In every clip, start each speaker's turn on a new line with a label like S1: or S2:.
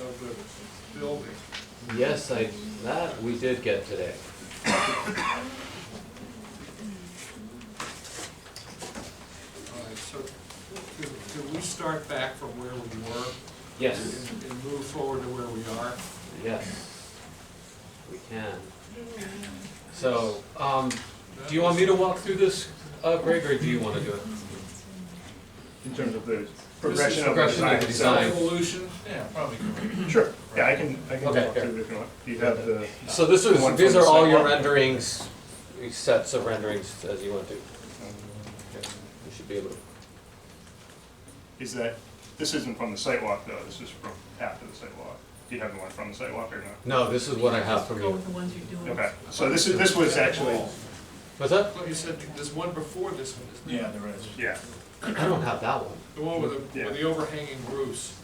S1: of the building.
S2: Yes, I, that we did get today.
S1: All right, so could, could we start back from where we were?
S2: Yes,
S1: And and move forward to where we are?
S2: yes, we can. So, um, do you want me to walk through this, uh, Greg, or do you wanna do it?
S3: in terms of the progression of the
S2: progression
S3: design.
S2: of the
S3: itself.
S2: design.
S1: Evolution?
S4: Yeah, probably. good.
S3: Sure, yeah, I can, I can
S2: Okay,
S3: walk through it if you want. You have the,
S2: So this
S3: The one
S2: was, these
S3: from
S2: are
S3: the
S2: all your
S3: sidewalk?
S2: renderings, sets of renderings as you want to. You
S3: Um,
S2: should be able to,
S3: is that, this isn't from the sidewalk though, this is from after the sidewalk. Do you have the one from the sidewalk or not?
S2: no, this is what I have from
S5: Go
S2: you.
S5: with the ones you're doing.
S3: Okay, so this is, this was actually,
S2: What's that?
S1: Well, you said there's one before this one, isn't there?
S4: Yeah, there is.
S3: yeah,
S2: I don't have that one.
S1: The one with the,
S3: Yeah.
S1: with the overhanging roofs.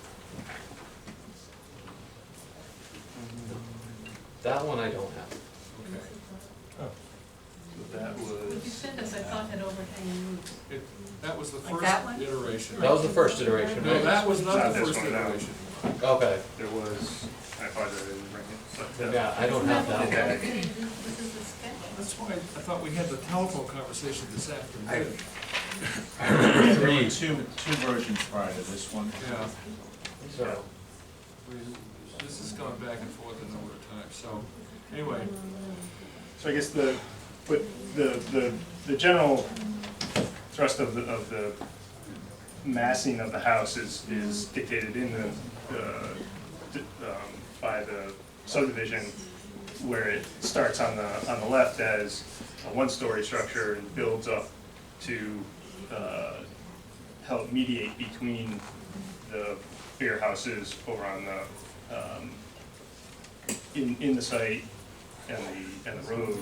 S2: That one I don't have.
S1: Okay.
S4: That
S5: Would you
S4: was.
S5: send us, I thought had overhanging roofs.
S1: It, that was the
S5: Like
S1: first
S5: that one?
S1: iteration.
S2: That was the first iteration,
S1: No,
S2: right?
S1: that was not the
S3: Not this
S1: first
S3: one, that one.
S1: iteration.
S2: Okay,
S3: there was, I apologize, I didn't bring it. but, uh,
S2: yeah, I don't have that one.
S3: Okay.
S5: This is the sketch.
S1: That's why I thought we had the telephone conversation this afternoon.
S4: There were two, two versions prior to this one.
S1: Yeah,
S2: So,
S1: we, this has gone back and forth a number of times, so, anyway,
S3: So I guess the, but the, the, the general thrust of the, of the massing of the house is, is dictated in the, uh, d- um, by the subdivision where it starts on the, on the left as a one-story structure and builds up to, uh, help mediate between the bigger houses over on the, um, in, in the site and the, and the road,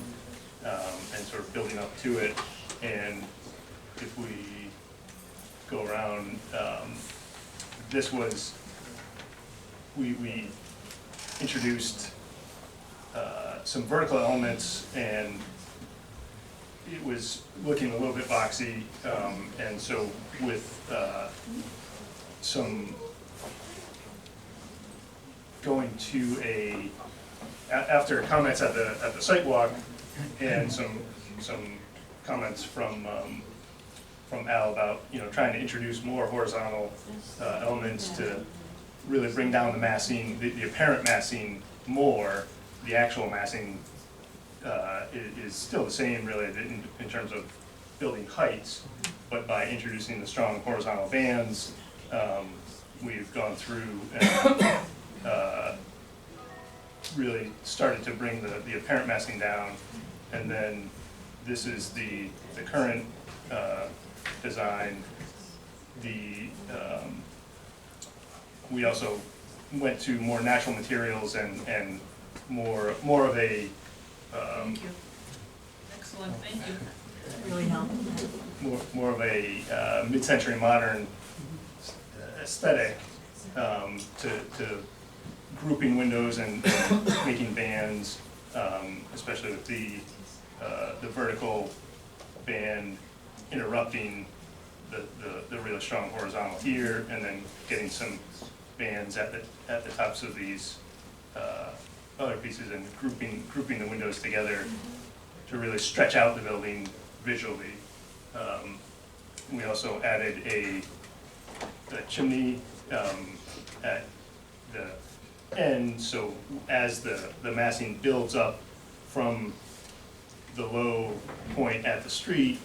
S3: um, and sort of building up to it. And if we go around, um, this was, we, we introduced, uh, some vertical elements and it was looking a little bit boxy, um, and so with, uh, some going to a, a- after comments at the, at the site walk and some, some comments from, um, from Al about, you know, trying to introduce more horizontal, uh, elements to really bring down the massing, the, the apparent massing more, the actual massing, uh, is, is still the same really in, in terms of building heights, but by introducing the strong horizontal bands, um, we've gone through and, uh, really started to bring the, the apparent massing down. And then this is the, the current, uh, design. The, um, we also went to more natural materials and, and more, more of a, um,
S5: Thank you. Excellent, thank you. Really helpful.
S3: more, more of a, uh, mid-century modern uh, aesthetic, um, to, to grouping windows and and making bands, um, especially with the, uh, the vertical band interrupting the, the, the really strong horizontal here, and then getting some bands at the, at the tops of these, uh, other pieces and grouping, grouping the windows together to really stretch out the building visually. Um, We also added a a chimney um, at the end, so as the, the massing builds up from the low point at the street,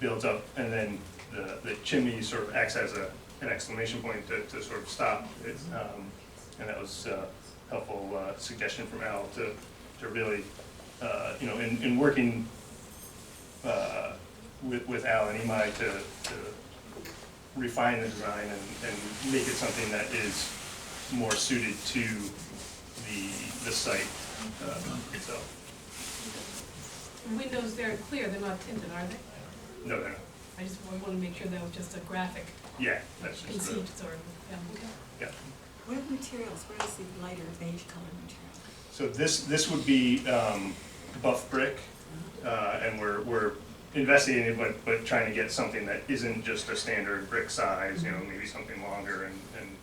S3: builds up, and then the, the chimney sort of acts as a, an exclamation point to, to sort of stop it. Um, And that was a helpful uh, suggestion from Al to, to really, uh, you know, in, in working uh, with, with Al and Imai to, to refine the design and, and make it something that is more suited to the, the site uh, itself.
S5: The windows there are clear, they're not tinted, are they?
S3: No, no, no.
S5: I just want to make sure that was just a graphic
S3: yeah, that's just, the-
S5: conceived sort of, yeah, okay.
S3: yeah.
S6: What are the materials, where is the lighter beige colored material?
S3: So this, this would be um, buff brick, uh, and we're, we're investigating it, but, but trying to get something that isn't just a standard brick size, you know, maybe something longer and, and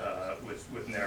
S3: uh, with, with narrower